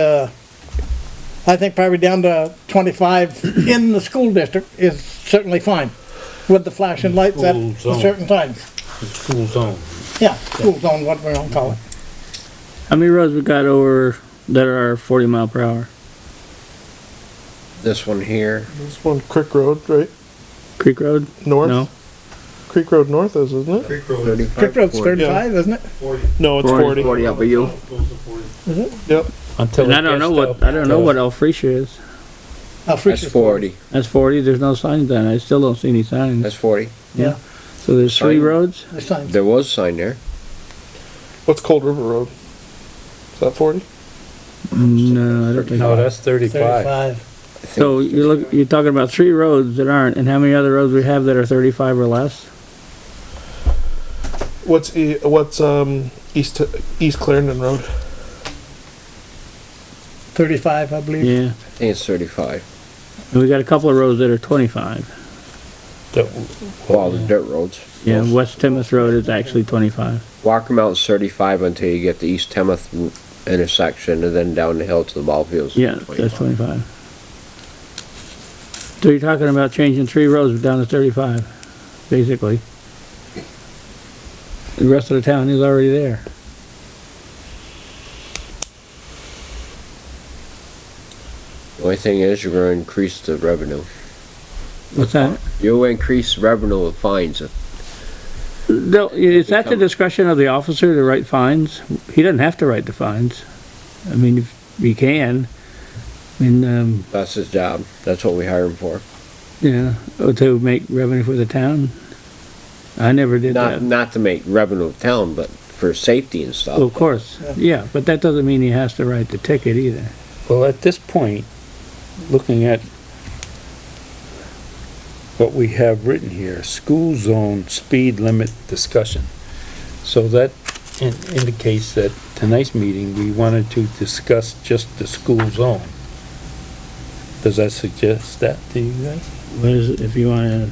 uh, I think probably down to twenty-five in the school district is certainly fine with the flashing lights at School zone. certain times. school zone. Yeah, school zone, what we gonna call it. How many roads we got over that are forty mile per hour? This one here, This one Creek Road, right? Creek Road? North? No. Creek Road North is, isn't it? Creek Road is Creek thirty-five, Road's forty. thirty-five, isn't it? forty. No, it's Forty, forty. forty up a hill. Goes to forty. Yep. Until And it I don't gets know up what, I don't know to- what Alphresia is. Uh, That's forty, That's forty, there's no signs then, I still don't see any signs. that's forty. So there's three Sign. roads? The sign. There was a sign there. What's Cold River Road? Is that forty? No, I don't think. No, that's thirty-five. Thirty-five. I think So it's you're look, you're talking about three roads that aren't, and how many other roads we have that are thirty-five or less? What's e- what's um East East Clarendon Road? Thirty-five, I believe. Yeah, I think it's thirty-five. and we got a couple of roads that are twenty-five. That- Well, the dirt roads. Yeah, West Timoth Road is actually twenty-five. Walker Mountain's thirty-five until you get to East Temeth intersection and then down the hill to the ball fields. Yeah, that's twenty-five. So you're talking about changing three roads down to thirty-five, basically. The rest of the town is already there. The Only thing is, you're gonna increase the revenue. What's that? You'll increase revenue of fines. No, it's at the discretion of the officer to write fines. He doesn't have to write the fines. I mean, if he can. I mean, um, That's his job. That's what we hire him for. yeah, to make revenue for the town. I never did Not, that. not to make revenue of town, but for safety and Well, Of stuff. course, yeah, but that doesn't mean he has to write the ticket either. Well, at this point, looking at what we have written here, school zone speed limit discussion. So that in- indicates that tonight's meeting, we wanted to discuss just the school zone. Does that suggest that to you guys? What is, it? if you wanna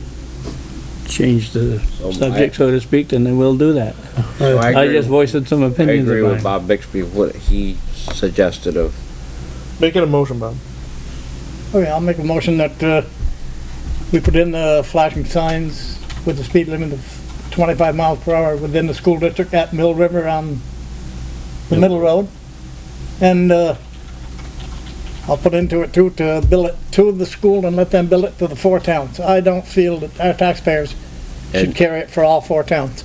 change the So subject, so to speak, then we'll do that. So I I agree, just voiced some I opinions agree with of mine. Bob Bixby, what he suggested of Make it a motion, Bob. Okay, I'll make a motion that, uh, we put in the flashing signs with the speed limit of twenty-five miles per hour within the school district at Mill River on the middle road. And, uh, I'll put into it too, to bill it to the school and let them bill it to the four towns. I don't feel that our taxpayers should And- carry it for all four towns.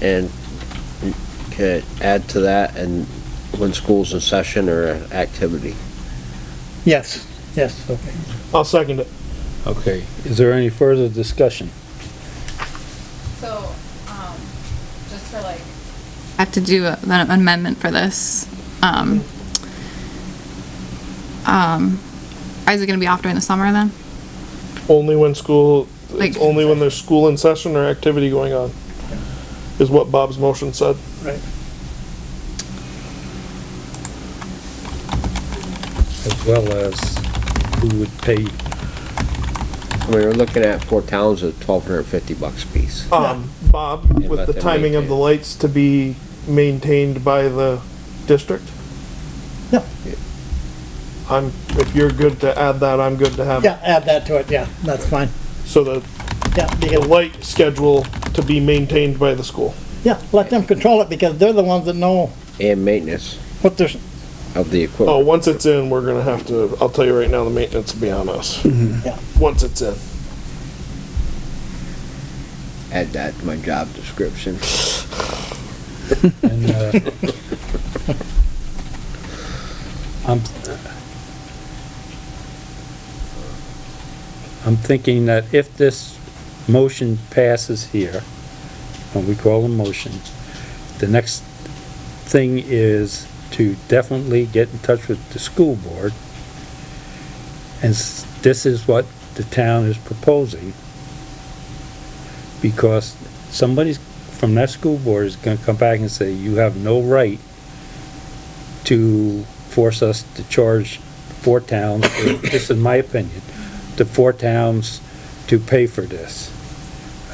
And could add to that and when school's in session or activity. Yes, yes, okay. I'll second it. Okay, is there any further discussion? So, um, just for like. I have to do a- an amendment for this. Um, um, is it gonna be off during the summer then? Only when school Like- it's only when there's school in session or activity going on. Is what Bob's motion said. As well as who would pay I mean, we're looking at four towns at twelve hundred and fifty bucks a piece. Um, Bob, Yeah, with let the them timing of maintain. the lights to be maintained by the district? Yeah. I'm, if you're good to add that, I'm good to have, Yeah, it. add that to it, yeah, that's fine. so the, Yeah, the because light schedule to be maintained by the school. Yeah, let them control it because they're the ones that know And maintenance what they're, of the Oh, equipment. once it's in, we're gonna have to, I'll tell you right now, the maintenance will be on us. Yeah. Once it's in. Add that to my job description. And, uh, I'm, I'm thinking that if this motion passes here, when we call a motion, the next thing is to definitely get in touch with the school board. And s- this is what the town is proposing. Because somebody's from that school board is gonna come back and say, you have no right to force us to charge four towns, or, this is my opinion, to four towns to pay for this.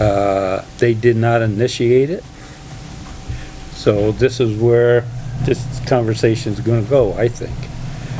Uh, they did not initiate it. Oh, So this is where this conversation is gonna go, I think.